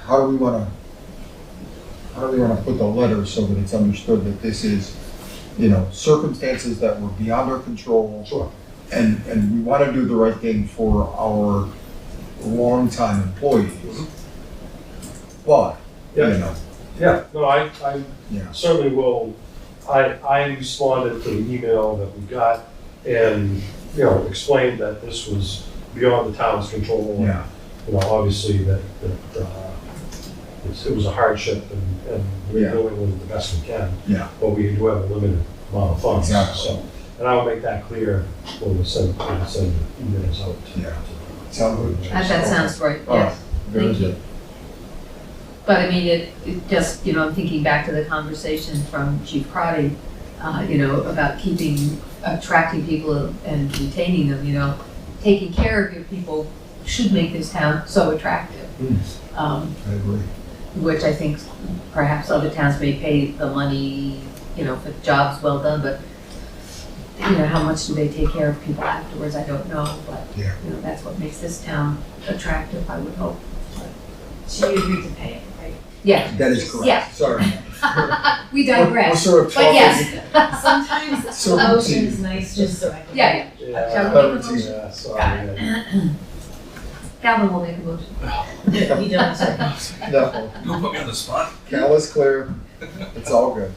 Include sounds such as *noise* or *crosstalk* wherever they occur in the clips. how do we wanna, how do we wanna put the letter so that it's understood that this is, you know, circumstances that were beyond our control? Sure. And, and we wanna do the right thing for our longtime employees. But, you Yeah, know, yeah, no, I, I yeah, certainly will, I, I responded to the email that we got and, you know, explained that this was beyond the town's control. and, yeah, You know, obviously that, that, uh, it's- it was a hardship and, and we're Yeah. doing with the best we can. Yeah. But we do have a limited amount of funds, Exactly. so, and I will make that clear when we send, when we send the emails out. to- Yeah. sound good? That that sounds right, All right, yes. very Thank you. good. But I mean, it, it just, you know, I'm thinking back to the conversation from Chief Crotty, uh, you know, about keeping, attracting people and retaining them, you know. Taking care of your people should make this town so attractive, Mm, um, I agree. which I think perhaps other towns may pay the money, you know, for jobs well done, but, you know, how much do they take care of people afterwards, I don't know, but, Yeah. you know, that's what makes this town attractive, I would hope. So you agreed to pay it, right? Yeah, That is Yeah. correct, sorry. we We're- We're digress. sort of But talking, yes, Sometimes So a motion routine. is nice just so I can. yeah, yeah. Yeah, Shall But we make a motion? yeah, sorry. Calvin will make a motion. Yeah, He does, *laughs* sorry. no, Don't put me on the spot. Cal is clear, it's all good.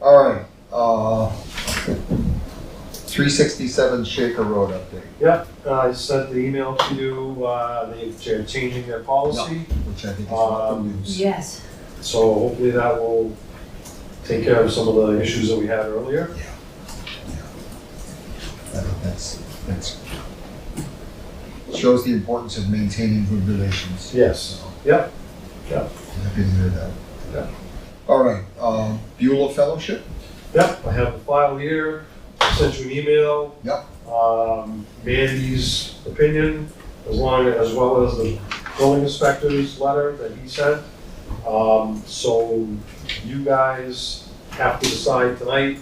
All right, uh, three sixty-seven Shaker Road update, I uh, sent the email to you, uh, they- they're changing their policy. which I think is what the Um, news. Yes. So hopefully that will take care of some of the issues that we had earlier. I think that's, that's, shows the importance of maintaining good relations. Yes. Yep. Yep. Happy to hear that. Yep. All right, um, Beulah Fellowship, Yep, I have the file here, I sent you an email. Yep. Um, Mandy's opinion, as long, as well as the building inspector's letter that he sent. Um, so you guys have to decide tonight,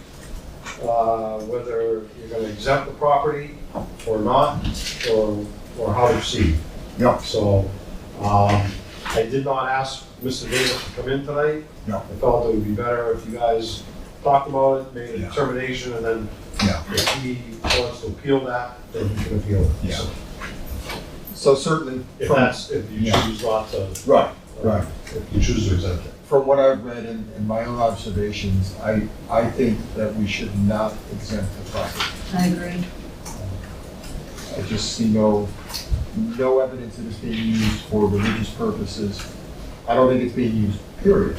uh, whether you're gonna exempt the property or not, or, or how to proceed. Yep. So, um, I did not ask Mr. Davis to come in tonight. Yep. I felt it would be better if you guys talked about it, made a Yeah. determination, and then Yeah. if he wants to appeal that, then he can appeal it. Yeah. So so certainly If from, that's, if you Yeah. choose not to, right, right. if you choose to exempt it. from what I've read and, and my own observations, I, I think that we should not exempt the property. I agree. I just see no, no evidence that it's being used for religious purposes. I don't think it's being used, period.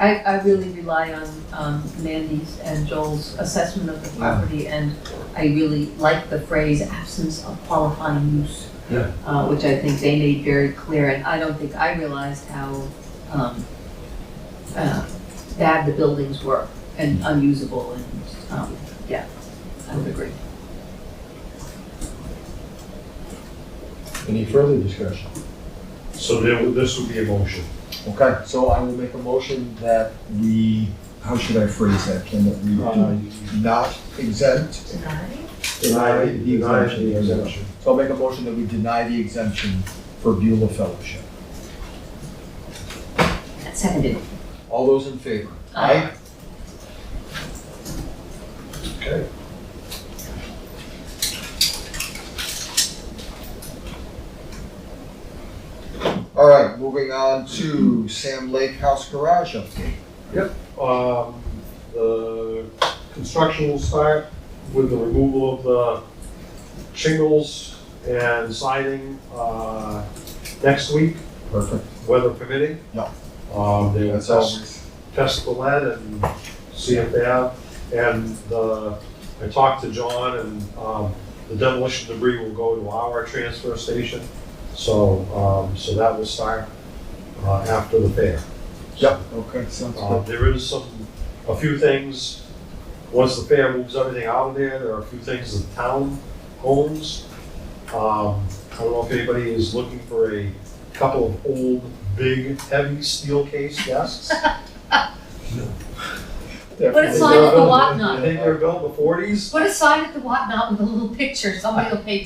I, I really rely on um, Mandy's and Joel's assessment of the property, and I really like the phrase absence of qualifying use. Yeah. Uh, which I think they made very clear, and I don't think I realized how, um, uh, bad the buildings were and unusable and, um, yeah, I would agree. Any further discussion? So there, would- this would be a motion. Okay, so I will make a motion that we, how should I phrase that, Ken, that we Uh, do not exempt, Deny? deny the Deny the exemption. exemption. So I'll make a motion that we deny the exemption for Beulah Fellowship. Seconded. All those in favor? Aye. Okay. All right, moving on to Sam Lake House Garage update. Um, the construction will start with the removal of the shingles and siding, uh, next week, Perfect. weather permitting. Yeah. Um, they will That's test always, test the lead and see if they have. And the, I talked to John and, um, the demolition debris will go to our transfer station. So, um, so that will start, uh, after the fair. yep, Uh-huh. okay, sounds Uh, good. there is some, a few things, once the fair moves everything out of there, there are a few things the town owns. Um, I don't know if anybody is looking for a couple of old, big, heavy steel case desks. But Definitely. it's signed at the Yeah. Whatnot. I think they were built in the forties. What a sign at the Whatnot with a little picture, somebody will pay